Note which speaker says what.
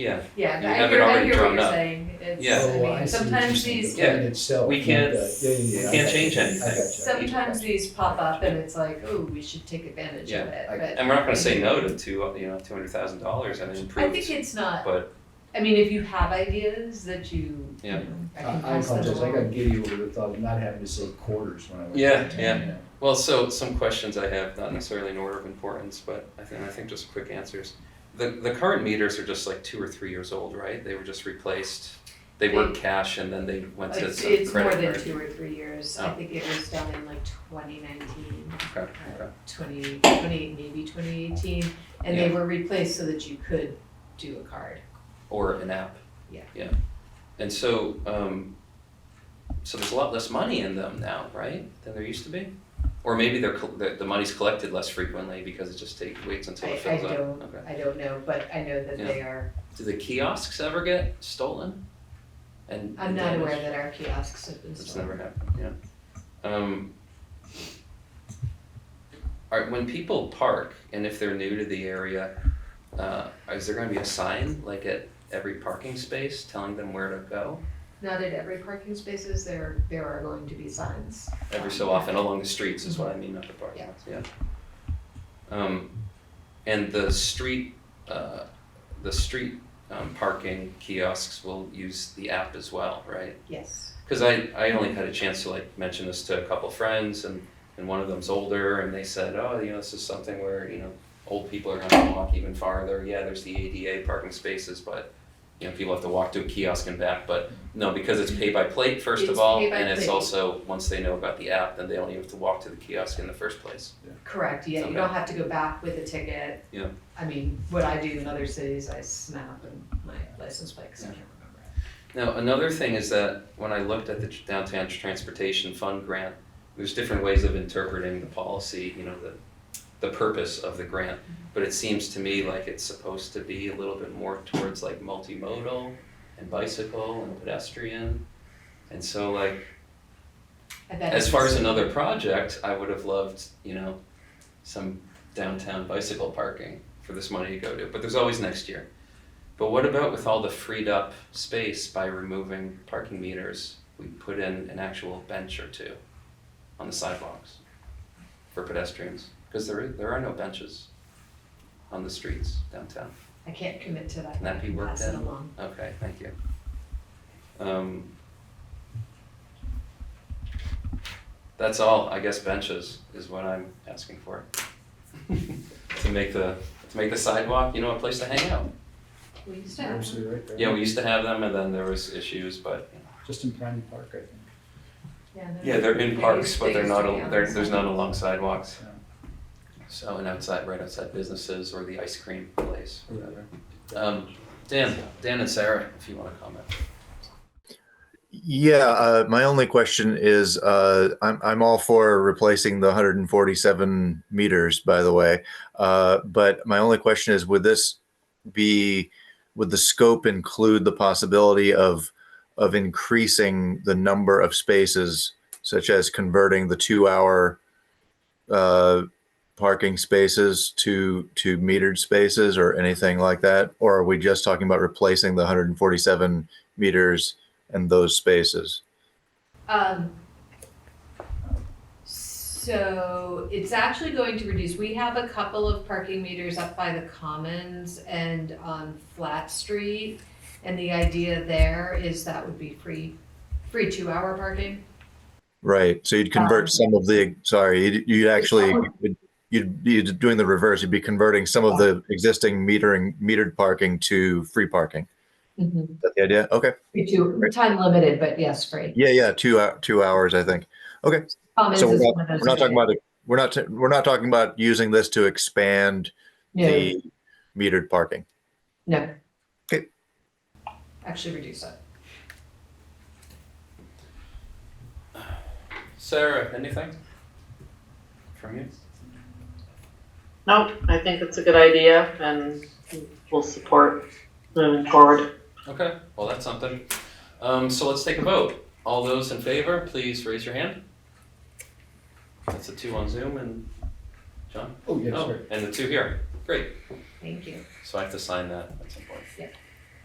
Speaker 1: Yeah,
Speaker 2: Yeah,
Speaker 1: You
Speaker 2: I
Speaker 1: have it
Speaker 2: hear, I
Speaker 1: already
Speaker 2: hear what
Speaker 1: drawn
Speaker 2: you're
Speaker 1: up.
Speaker 2: saying. It's,
Speaker 1: Yeah.
Speaker 2: I
Speaker 3: Oh,
Speaker 2: mean,
Speaker 3: I see what you're
Speaker 2: sometimes
Speaker 3: saying.
Speaker 2: these,
Speaker 3: The plan itself,
Speaker 1: we
Speaker 3: you
Speaker 1: can't-
Speaker 3: got- yeah, yeah,
Speaker 1: we
Speaker 3: yeah, I
Speaker 1: can't
Speaker 3: got
Speaker 1: change
Speaker 3: you. I
Speaker 1: anything.
Speaker 3: got you.
Speaker 2: sometimes these pop up and it's like, oh, we should take advantage of it,
Speaker 3: I-
Speaker 2: but.
Speaker 1: and we're not gonna say no to two, you know, two hundred thousand dollars and
Speaker 2: I
Speaker 1: improve.
Speaker 2: think it's not,
Speaker 1: but-
Speaker 2: I mean, if you have ideas that you, you
Speaker 1: Yeah.
Speaker 2: know, I
Speaker 3: I
Speaker 2: can
Speaker 3: I
Speaker 2: pass them
Speaker 3: apologize, I
Speaker 2: along.
Speaker 3: got giddy over the thought of not having to say quarters when I was.
Speaker 1: Yeah, yeah.
Speaker 3: you know.
Speaker 1: Well, so some questions I have, not necessarily in order of importance, but I think, I think just quick answers. The, the current meters are just like two or three years old, right? They were just replaced. They were cash and then they went to
Speaker 2: It's,
Speaker 1: some
Speaker 2: it's more
Speaker 1: credit
Speaker 2: than
Speaker 1: card.
Speaker 2: two or three years, I
Speaker 1: Oh.
Speaker 2: think it was done in like twenty nineteen,
Speaker 1: Okay, okay.
Speaker 2: twenty, twenty, maybe twenty eighteen, and they
Speaker 1: Yeah.
Speaker 2: were replaced so that you could do a card.
Speaker 1: Or an app.
Speaker 2: Yeah.
Speaker 1: Yeah. And so, um, so there's a lot less money in them now, right, than there used to be? Or maybe they're, col- the, the money's collected less frequently because it just takes, waits until
Speaker 2: I,
Speaker 1: it
Speaker 2: I
Speaker 1: fills up.
Speaker 2: don't,
Speaker 1: Okay.
Speaker 2: I don't know, but I know that
Speaker 1: Yeah.
Speaker 2: they are,
Speaker 1: Do the kiosks ever get stolen? And
Speaker 2: I'm
Speaker 1: and
Speaker 2: not aware
Speaker 1: damaged?
Speaker 2: that our kiosks have been
Speaker 1: That's
Speaker 2: stolen.
Speaker 1: never happened, yeah. Um. Alright, when people park and if they're new to the area, uh, is there gonna be a sign like at every parking space telling them where to go?
Speaker 2: Not at every parking spaces, there, there are going to be signs.
Speaker 1: Every so often along the streets is what I mean, not the parking lots, yeah. Um, and the street, uh, the street, um, parking kiosks will use the app as well, right?
Speaker 2: Yes,
Speaker 1: because I, I only had a chance to like mention this to a couple friends and, and one of them's older and they said oh you know this is something where you know old people are going to walk even farther yeah there's the ada parking spaces but you know people have to walk to a kiosk and back but no because it's pay by plate first of
Speaker 2: It's
Speaker 1: all
Speaker 2: pay by
Speaker 1: and it's
Speaker 2: plate.
Speaker 1: also once they know about the app then they don't even have to walk to the kiosk in the first place
Speaker 2: correct, yeah, you
Speaker 1: Okay.
Speaker 2: don't have to go back with a ticket.
Speaker 1: Yeah.
Speaker 2: I mean, what I do in other cities, I snap and my license plate, 'cause I
Speaker 1: Yeah.
Speaker 2: can't remember. it.
Speaker 1: Now, another thing is that when I looked at the tr- downtown transportation fund grant, there's different ways of interpreting the policy, you know, the, the purpose of the grant. But it seems to me like it's supposed to be a little bit more towards like multimodal and bicycle and pedestrian. And so like,
Speaker 2: I bet
Speaker 1: as
Speaker 2: it's-
Speaker 1: far as another project, I would have loved, you know, some downtown bicycle parking for this money to go to, but there's always next year. But what about with all the freed up space by removing parking meters, we put in an actual bench or two on the sidewalks for pedestrians, because there, there are no benches on the streets downtown.
Speaker 2: I can't commit to that.
Speaker 1: Can that be worked
Speaker 2: Pass it
Speaker 1: in?
Speaker 2: along.
Speaker 1: Okay, thank you. Um, That's all, I guess benches is what I'm asking for. To make the, to make the sidewalk, you know, a place to hang out.
Speaker 2: We used to
Speaker 3: You're
Speaker 2: have
Speaker 3: absolutely right there.
Speaker 1: Yeah, we used to have them and then there was issues, but, you know.
Speaker 3: Just in Prime Park, I think.
Speaker 2: yeah,
Speaker 1: yeah, they're in parks, but they're not, al-
Speaker 2: on.
Speaker 1: there, there's not along sidewalks. So, and outside, right outside businesses or the ice cream place, whatever. Um, Dan, Dan and Sarah, if you wanna comment.
Speaker 4: Yeah, uh, my only question is, uh, I'm, I'm all for replacing the 147 meters, by the way. Uh, but my only question is, would this be, would the scope include the possibility of, of increasing the number of spaces, such as converting the two-hour uh, parking spaces to, to metered spaces or anything like that? Or are we just talking about replacing the 147 meters? and those spaces.
Speaker 2: Um, so it's actually going to reduce, we have a couple of parking meters up by the commons and on Flat Street. And the idea there is that would be free, free two-hour parking.
Speaker 4: Right. So you'd convert
Speaker 2: Um,
Speaker 4: some of the, sorry, you'd, you'd actually, you'd, you'd be doing the reverse. You'd be converting some of the existing metering, metered parking to free parking. Is that the idea? Okay.
Speaker 2: Free two, time limited, but yes, free.
Speaker 4: Yeah. Yeah. Two, hou- two hours, I think. Okay.
Speaker 2: Commons
Speaker 4: So
Speaker 2: is
Speaker 4: we're not,
Speaker 2: one of those.
Speaker 4: we're not talking
Speaker 2: areas.
Speaker 4: about, it- we're not, t- we're not talking about using this to expand the metered parking.
Speaker 2: No, no.
Speaker 4: Okay.
Speaker 2: Actually reduce it.
Speaker 1: Sarah, anything from you?
Speaker 5: Nope, I think it's a good idea and we'll support moving forward.
Speaker 1: Okay, well, that's something. Um, so let's take a vote. All those in favor, please raise your hand. That's the two on Zoom and John.
Speaker 3: Oh, yeah,
Speaker 1: Oh,
Speaker 3: sorry.
Speaker 1: And the two here. Great.
Speaker 2: Thank you.
Speaker 1: So I have to sign that. That's important.
Speaker 2: Yeah.